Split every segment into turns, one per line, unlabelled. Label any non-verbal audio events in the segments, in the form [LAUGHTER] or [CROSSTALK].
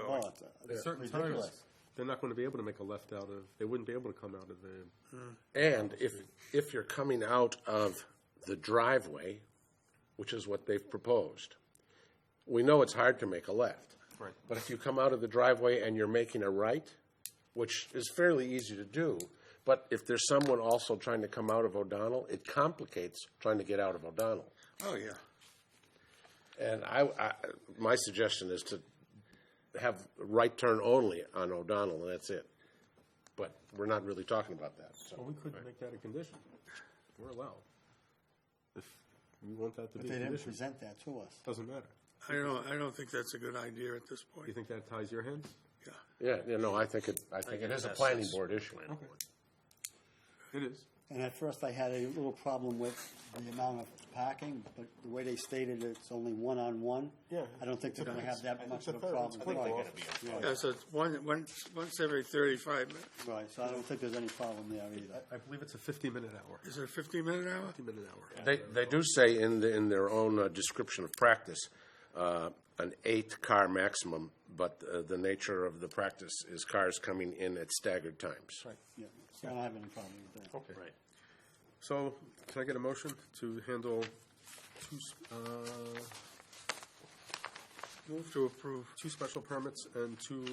at
Oh, Yeah,
certain
ridiculous.
times, they're not going to be able to make a left out of, they wouldn't be able to come out of the.
And if, if you're coming out of the driveway, which is what they've proposed, we know it's hard to make a left.
Right.
But if you come out of the driveway and you're making a right, which is fairly easy to do, but if there's someone also trying to come out of O'Donnell, it complicates trying to get out of O'Donnell.
Oh, yeah.
And I, I, my suggestion is to have right turn only on O'Donnell, and that's it. But we're not really talking about that, so.
Well, we could make that a condition. We're allowed. If you want that to
But
be
they
a
didn't
condition,
present that to us.
doesn't matter.
I don't, I don't think that's a good idea at this
You
point.
think that ties your hands?
Yeah.
Yeah, you know, I think it, I think it is a planning board issue.
It is.
And at first I had a little problem with the amount of parking, but the way they stated it, it's only one-on-one.
Yeah.
I don't think they're gonna have that much of a problem. Right,
Yeah, so it's one, one, once every thirty-five minutes.
Right, so I don't think there's any problem there either.
I believe it's a fifty-minute hour.
Is it a fifteen-minute hour?
Fifty-minute hour.
They, they do say in, the- in their own uh, description of practice, uh, an eight-car maximum, but uh, the nature of the practice is cars coming in at staggered times.
Yeah, so I don't have any problem with that.
Okay. So, can I get a motion to handle two, s- uh,
Move to approve.
two special permits and two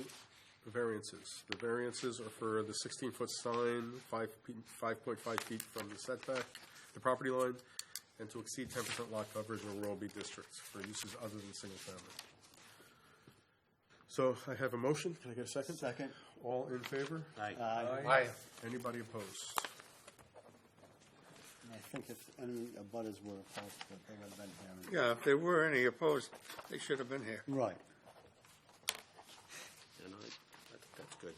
variances? The variances are for the sixteen-foot sign, five, five point five feet from the setback, the property line, and to exceed ten percent lot coverage in rural B districts for uses other than single family. So I have a motion. Can I get a second?
Second,
All in favor? Aye.
Aye.
Aye.
Anybody opposed?
and I think if any abutters were opposed, that they would have been here.
Yeah, if there were any opposed, they should have been here.
Right.
And I, I think that's good.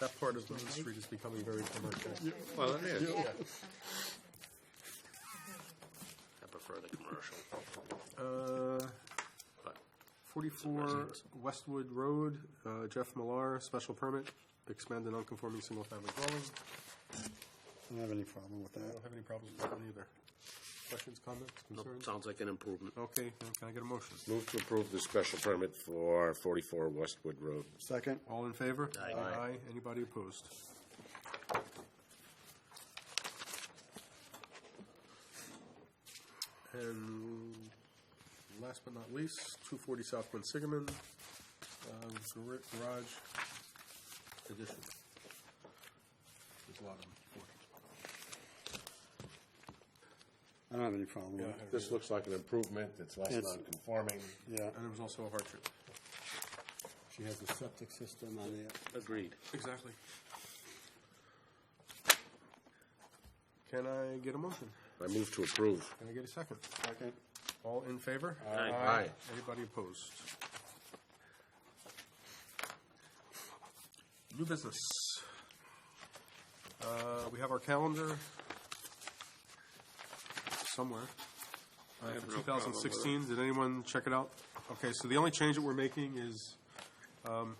That part of Main Street is becoming very commercial.
Well, it is.
I prefer the commercial.
Uh, 44 Westwood Road, uh, Jeff Millar, special permit, expand a non-conforming single-family dwelling.
I don't have any problem with
I
that.
don't have any problems with that either. Questions, comments, concerns?
Sounds like an improvement.
Okay, then can I get a motion?
Move to approve the special permit for 44 Westwood Road.
Second,
All in favor?
Aye. Aye.
Aye. Anybody opposed? And last but not least, two forty South Quinsigamon, uh, gar- garage addition. There's a lot of them.
I don't have any problem with it.
This looks like an improvement, it's less
It's-
non-conforming.
Yeah,
And there was also a hardship.
she has a septic system on there.
Agreed.
Exactly. Can I get a motion?
I move to approve.
Can I get a second?
Second,
All in favor?
Aye. Aye.
Anybody opposed? New business. Uh, We have our calendar somewhere. Uh,
have
for
no problem with
2016, did anyone check it out? Okay, so the only change that we're making is um,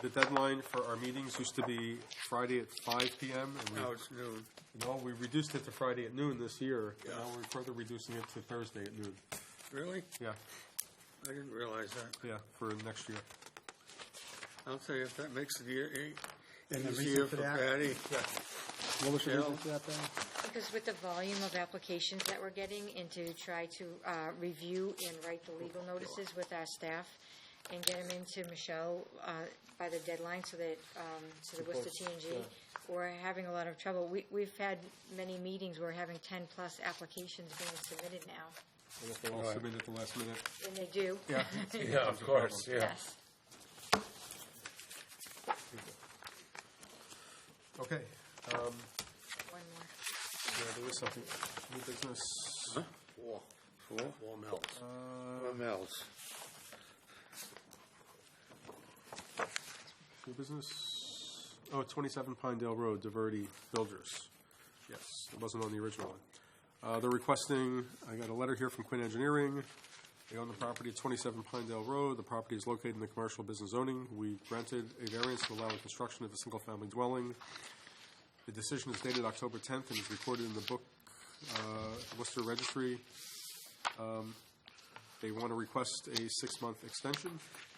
the deadline for our meetings used to be Friday at 5 PM. and we-
Now it's noon.
No, we reduced it to Friday at noon this year. and Now we're further reducing it to Thursday at noon.
Really?
Yeah,
I didn't realize that.
yeah, for next year.
I'll tell you, if that makes it easier,
And the
easier
reason for
for
that-
Patty.
what was the reason
Bill?
for that, Ben?
Because with the volume of applications that we're getting and to try to uh, review and write the legal notices with our staff and get them into Michelle uh, by the deadline so that, um, so the Worcester TNG, we're having a lot of trouble. We, we've had many meetings, we're having ten-plus applications being submitted now,
Unless they all submit at the last minute.
and they do.
[LAUGHS]
Yeah.
[LAUGHS] Yeah, of course, yeah.
Yes.
Okay, um,
One more.
yeah, there is something, new business.
Four. Four? Four mills.
Uh,
Four mills.
New business, oh, 27 Pinedale Road, Diverty Builders. Yes, it wasn't on the original one. Uh, They're requesting, I got a letter here from Quinn Engineering. They own the property at 27 Pinedale Road. The property is located in the commercial business zoning. We granted a variance to allow the construction of a single-family dwelling. The decision is dated October 10th and is recorded in the book, uh, Worcester Registry. Um, They want to request a six-month extension.